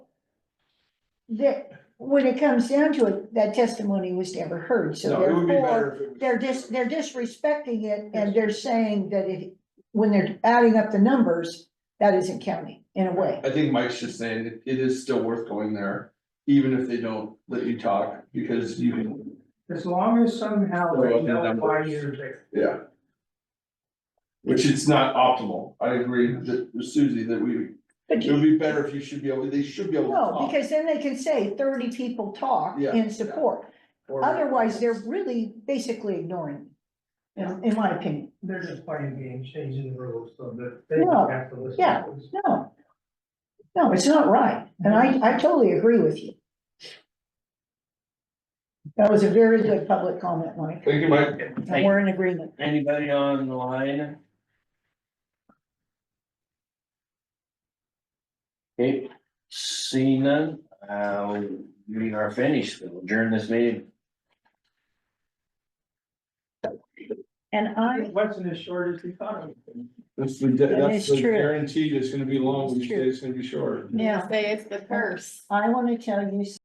that, when it comes down to it, that testimony was never heard, so No, it would be therefore, better if it was. they're just, they're disrespecting it, and they're saying that it, when they're adding up the numbers, that isn't counting in a way. I think Mike's just saying it- it is still worth going there, even if they don't let you talk, because you can, As long as somehow Well, they the know why numbers. you're there. yeah. Which it's not optimal. I agree that with Susie that we, But it would be better if you should be able, they should be able to No, talk. because then they can say thirty people talk Yeah, in support, otherwise they're really basically ignoring. you know, in my opinion, They're just playing games, changing the rules so that they No, don't have to listen. yeah. no. No, it's not right, and I, I totally agree with you. That was a very good public comment, Mike, Thank you, Mike. and we're in agreement. Anybody on the line? Okay, seeing none, uh, we are finished, We'll adjourn this meeting. And I, It wasn't as short as we thought it was. That's the, That is that's the true. guarantee, it's gonna be long, It's we say true. it's gonna be short. yeah, Say it's the curse. I wanna tell you